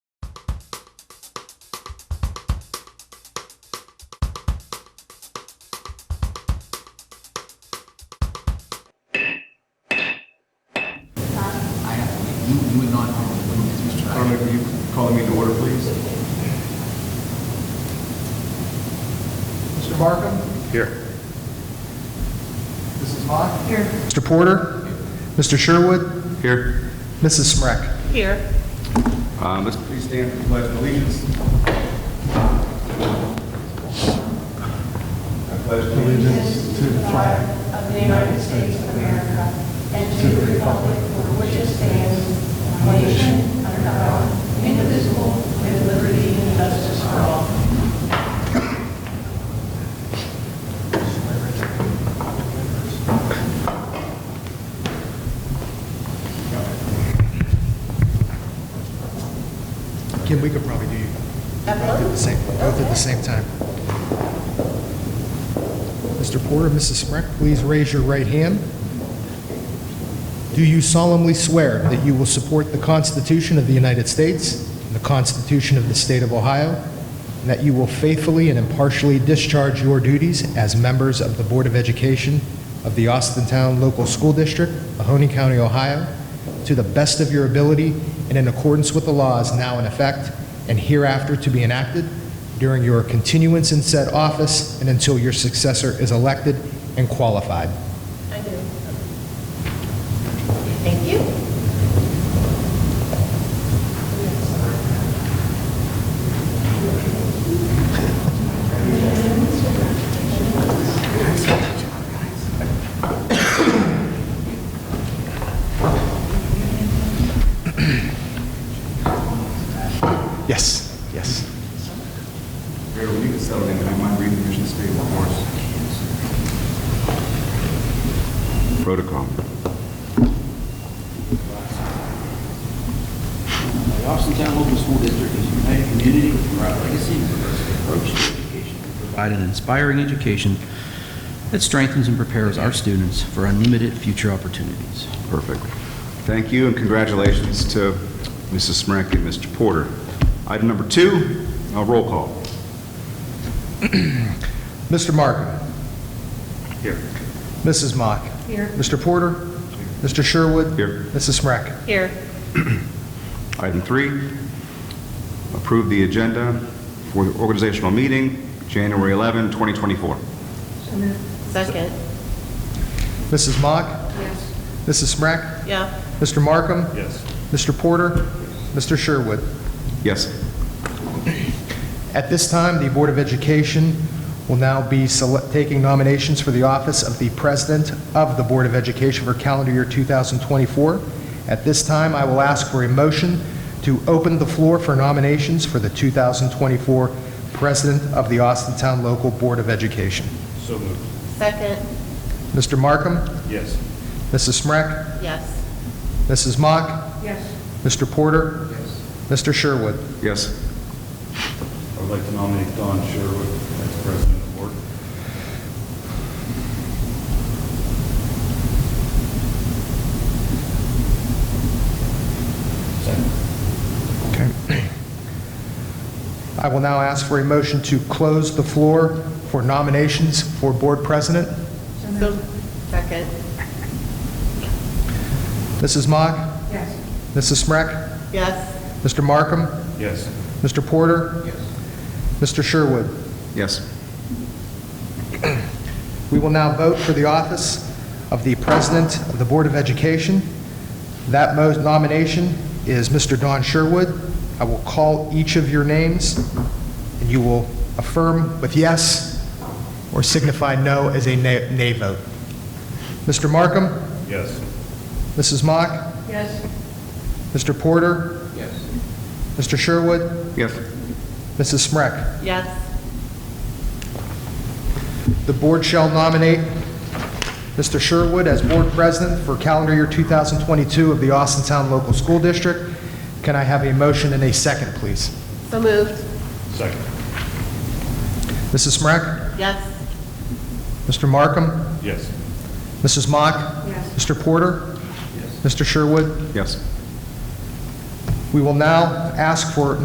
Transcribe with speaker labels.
Speaker 1: Call the meeting to order, please.
Speaker 2: Mr. Markham?
Speaker 3: Here.
Speaker 2: Mrs. Mock?
Speaker 4: Here.
Speaker 5: Mr. Porter, Mr. Sherwood,
Speaker 3: Here.
Speaker 5: Mrs. Smrek.
Speaker 4: Here.
Speaker 3: Um, Let's
Speaker 1: Please stand for the pledge of allegiance. I pledge allegiance
Speaker 4: Of the United States of America and to the republic for which it stands, one nation, under God, indivisible, with liberty and justice for all.
Speaker 5: Kim, we could probably do both at the same, both at the same time. Mr. Porter, Mrs. Smrek, please raise your right hand. Do you solemnly swear that you will support the Constitution of the United States and the Constitution of the State of Ohio, and that you will faithfully and impartially discharge your duties as members of the Board of Education of the Austintown Local School District, Mahoning County, Ohio, to the best of your ability and in accordance with the laws now in effect and hereafter to be enacted during your continuance in said office and until your successor is elected and qualified.
Speaker 4: I do. Thank you.
Speaker 5: Yes, yes.
Speaker 1: Mayor, you can settle in, I might read the commission's statement, of course.
Speaker 3: protocol.
Speaker 6: The Austintown Local School District is a united community with our legacy and progressive approach to education. to Provide an inspiring education that strengthens and prepares our students for unlimited future opportunities.
Speaker 3: Perfect. Thank you and congratulations to Mrs. Smrek and Mr. Porter. Item number two, uh, roll call.
Speaker 5: Mr. Markham.
Speaker 3: Here.
Speaker 5: Mrs. Mock.
Speaker 4: Here.
Speaker 5: Mr. Porter. Mr. Sherwood.
Speaker 3: Here.
Speaker 5: Mrs. Smrek.
Speaker 4: Here.
Speaker 3: Item three, approve the agenda for the organizational meeting, January 11, 2024.
Speaker 4: Second.
Speaker 5: Mrs. Mock.
Speaker 4: Yes.
Speaker 5: Mrs. Smrek.
Speaker 4: Yeah.
Speaker 5: Mr. Markham.
Speaker 1: Yes.
Speaker 5: Mr. Porter. Mr. Sherwood.
Speaker 3: Yes.
Speaker 5: At this time, the Board of Education will now be sele- taking nominations for the office of the President of the Board of Education for calendar year 2024. At this time, I will ask for a motion to open the floor for nominations for the 2024 President of the Austintown Local Board of Education.
Speaker 1: So moved.
Speaker 4: Second.
Speaker 5: Mr. Markham,
Speaker 1: Yes.
Speaker 5: Mrs. Smrek,
Speaker 4: Yes.
Speaker 5: Mrs. Mock,
Speaker 4: Yes.
Speaker 5: Mr. Porter,
Speaker 1: Yes.
Speaker 5: Mr. Sherwood.
Speaker 3: Yes.
Speaker 1: I would like to nominate Don Sherwood as president of the board.
Speaker 5: I will now ask for a motion to close the floor for nominations for Board President.
Speaker 4: Second.
Speaker 5: Mrs. Mock,
Speaker 4: Yes.
Speaker 5: Mrs. Smrek,
Speaker 4: Yes.
Speaker 5: Mr. Markham,
Speaker 1: Yes.
Speaker 5: Mr. Porter,
Speaker 1: Yes.
Speaker 5: Mr. Sherwood.
Speaker 3: Yes.
Speaker 5: We will now vote for the office of the President of the Board of Education. That mo- nomination is Mr. Don Sherwood. I will call each of your names, and you will affirm with yes or signify no as a nay nay vote. Mr. Markham,
Speaker 1: Yes.
Speaker 5: Mrs. Mock,
Speaker 4: Yes.
Speaker 5: Mr. Porter,
Speaker 6: Yes.
Speaker 5: Mr. Sherwood,
Speaker 3: Yes.
Speaker 5: Mrs. Smrek.
Speaker 4: Yes.
Speaker 5: The board shall nominate Mr. Sherwood as board president for calendar year 2022 of the Austintown Local School District. Can I have a motion and a second, please?
Speaker 4: So moved.
Speaker 1: Second.
Speaker 5: Mrs. Smrek,
Speaker 4: Yes.
Speaker 5: Mr. Markham,
Speaker 1: Yes.
Speaker 5: Mrs. Mock,
Speaker 4: Yes.
Speaker 5: Mr. Porter, Mr. Sherwood.
Speaker 3: Yes.
Speaker 5: We will now ask for